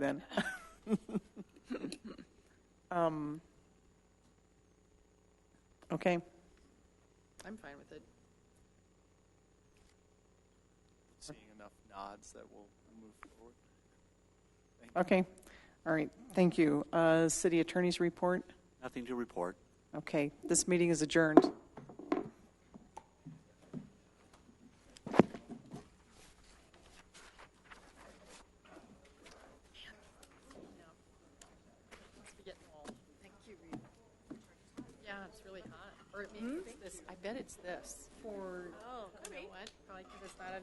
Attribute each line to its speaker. Speaker 1: then. Um, Okay,
Speaker 2: I'm fine with it.
Speaker 3: seeing enough nods that we'll move forward. Thank you.
Speaker 1: okay, all right, thank you. Uh, City Attorney's report?
Speaker 4: Nothing to report.
Speaker 1: Okay, this meeting is adjourned.
Speaker 2: Must be getting old. Thank you, Rita. Yeah, it's Hmm? Oh, really hot. Or it may- it's this, I bet it's this. For, you know what? Probably because it's not a